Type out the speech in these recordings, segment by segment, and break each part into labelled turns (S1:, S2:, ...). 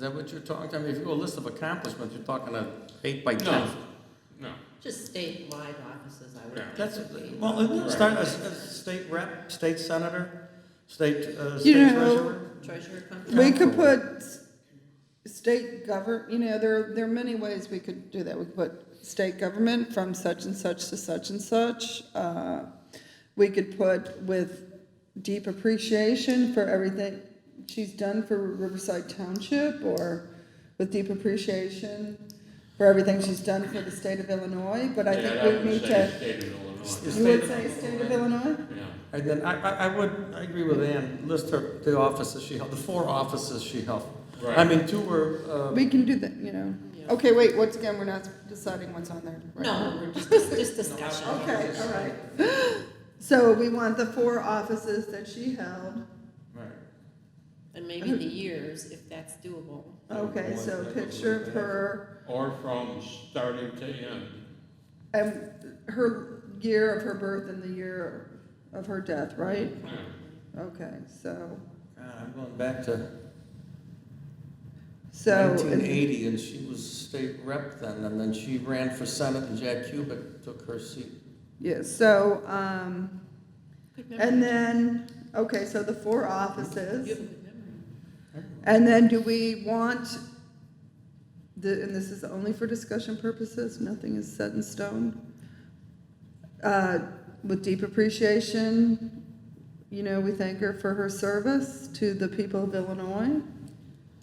S1: that what you're talking, I mean, if you go a list of accomplishments, you're talking a eight by ten.
S2: No,
S3: Just statewide offices, I would
S2: Yeah.
S3: think.
S1: That's,
S3: would be-
S1: well, isn't it start, a, a state rep, state senator, state, uh,
S4: You
S1: state
S4: know-
S1: treasurer?
S3: Treasurer company.
S4: We could put s- state govern, you know, there, there are many ways we could do that. We could put state government from such and such to such and such. Uh, We could put with deep appreciation for everything she's done for Riverside Township or with deep appreciation for everything she's done for the state of Illinois, but I think we need to,
S2: State of Illinois,
S1: Is
S4: you
S1: state-
S4: would say state of Illinois?
S2: yeah.
S1: And then I, I, I would, I agree with Ann, list her, the offices she held, the four offices she held. I
S2: Right.
S1: mean, two were, uh,
S4: We can do that, you know.
S3: Yeah.
S4: Okay, wait, once again, we're not deciding what's on there. right now.
S3: No, we're just, just just discussion.
S4: Okay, all right. So we want the four offices that she held.
S1: right.
S3: And maybe the years, if that's doable.
S4: Okay, so picture of her
S2: Or from starting to end,
S4: and her year of her birth and the year of her death, right?
S2: yeah.
S4: Okay, so,
S1: God, I'm going back to
S4: so.
S1: nineteen eighty, and she was state rep then, and then she ran for senate, and Jack Cubic took her seat.
S4: Yeah, so, um, and then, okay, so the four offices.
S3: You have a good memory.
S4: And then do we want, the, and this is only for discussion purposes, nothing is set in stone. Uh, With deep appreciation, you know, we thank her for her service to the people of Illinois.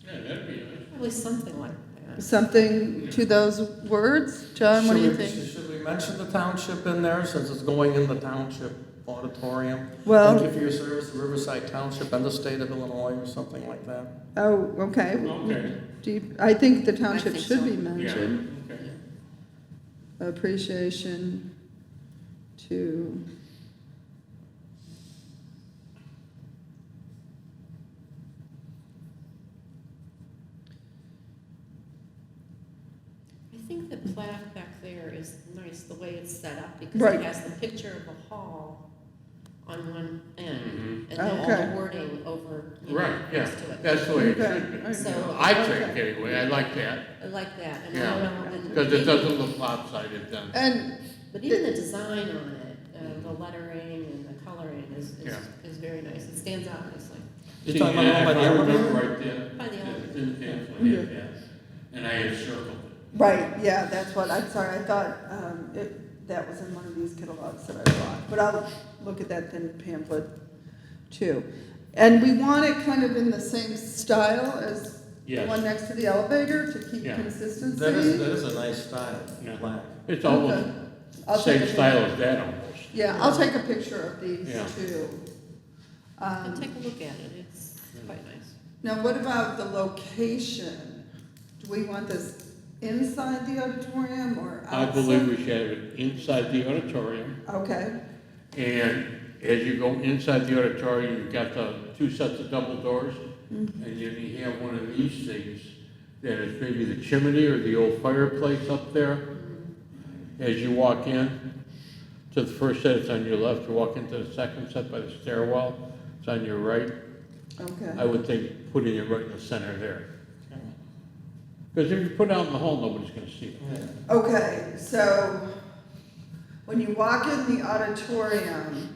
S2: Yeah, that'd be nice.
S3: Probably something like that.
S4: Something to those words, John, what do you
S1: Should we-
S4: think?
S1: Should we mention the township in there, since it's going in the township auditorium? Thank you
S4: Well,
S1: for your service to Riverside Township and the state of Illinois, or something like that.
S4: oh, okay.
S2: Okay,
S4: Deep, I think the
S3: I
S4: township
S3: think
S4: should
S3: so.
S4: be
S2: yeah,
S4: mentioned.
S2: okay.
S4: Appreciation to
S3: I think the plaque back there is nice, the way it's set up, because
S4: Right.
S3: it has the picture of the hall on one end,
S2: Mhm.
S3: and then all
S4: Okay.
S3: the wording over, you know,
S2: Right, yeah,
S3: next to it.
S2: that's the way it
S4: Okay,
S2: should be.
S3: So-
S2: I think, anyway, I like that,
S3: I like that, and I
S2: Yeah.
S3: don't know, and
S2: because it
S3: maybe-
S2: doesn't look lopsided then.
S4: And,
S3: But even the design on it, uh, the lettering and the coloring is, is,
S2: Yeah.
S3: is very nice. It stands out nicely.
S1: You're talking about
S2: Yeah,
S1: all by
S2: if
S1: the
S2: I
S1: elevator?
S2: remember right there.
S3: By the elevator.
S2: It's in Pennsylvania,
S4: Mm-hmm.
S2: yes. And I had circled
S4: Right, yeah, that's what, I'm sorry, I thought, um, it, that was in one of these catalogs that I bought, but I'll look at that thin pamphlet too. And we want it kind of in the same style as
S2: it.
S4: the
S2: Yes,
S4: one next to the elevator to keep
S2: Yeah.
S1: That is,
S4: consistency. uh,
S1: that is a nice style,
S2: Yeah.
S1: black.
S2: it's almost
S4: I'll take
S2: same
S4: a pic-
S2: style as that almost.
S4: Yeah, I'll take a picture of these
S2: Yeah.
S4: too.
S3: And
S4: Um,
S3: take a look at it. It's quite nice.
S4: now what about the location? Do we want this inside the auditorium or
S2: I
S4: outside?
S2: believe we should have it inside the auditorium,
S4: Okay,
S2: and as you go inside the auditorium, you've got the two sets of double doors,
S4: Mm-hmm.
S2: and then you have one of these things, that is maybe the chimney or the old fireplace up there.
S4: Mm-hmm.
S2: As you walk in to the first set, it's on your left, you walk into the second set by the stairwell, it's on your right. I
S4: okay,
S2: would think putting it right in the center there, because if you put it out in the hall, nobody's gonna see it.
S1: Yeah.
S4: okay, so when you walk in the auditorium,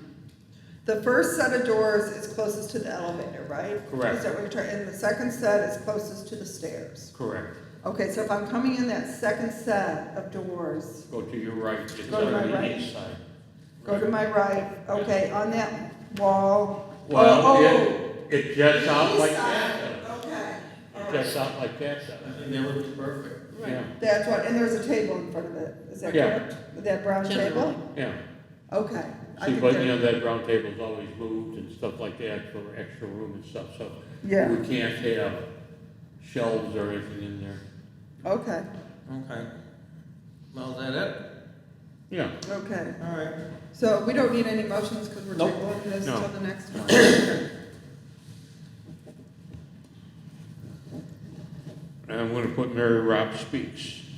S4: the first set of doors is closest to the elevator, right?
S2: Correct.
S4: Is that what you're trying, and the second set is closest to the stairs.
S2: Correct.
S4: Okay, so if I'm coming in that second set of doors,
S2: Go to your right, it's
S4: Go to
S2: on
S4: my
S2: the
S4: right.
S2: east side.
S4: go to my right, okay, on that wall.
S2: Well,
S4: Oh,
S2: it, it jets out
S4: East
S2: like
S4: side,
S2: that.
S4: Okay,
S2: though. It jets out like that. though.
S1: I think that would be perfect.
S2: Yeah,
S4: that's what, and there's a table in front of it, is that
S2: Yeah.
S4: correct? That brown
S3: Generally.
S4: table?
S2: yeah.
S4: Okay. I
S2: See,
S4: think
S2: but
S4: that-
S2: you know, that round table's always moved and stuff like that for extra room and stuff, so
S4: Yeah,
S2: we can't have shelves or anything in there.
S4: okay,
S1: Okay. Well, is that
S2: Yeah,
S4: okay.
S1: it? All right.
S4: So we don't need any motions because we're
S1: Nope.
S4: tabling this
S2: No.
S4: till the next one.
S2: And I'm gonna put Mary Robb speaks.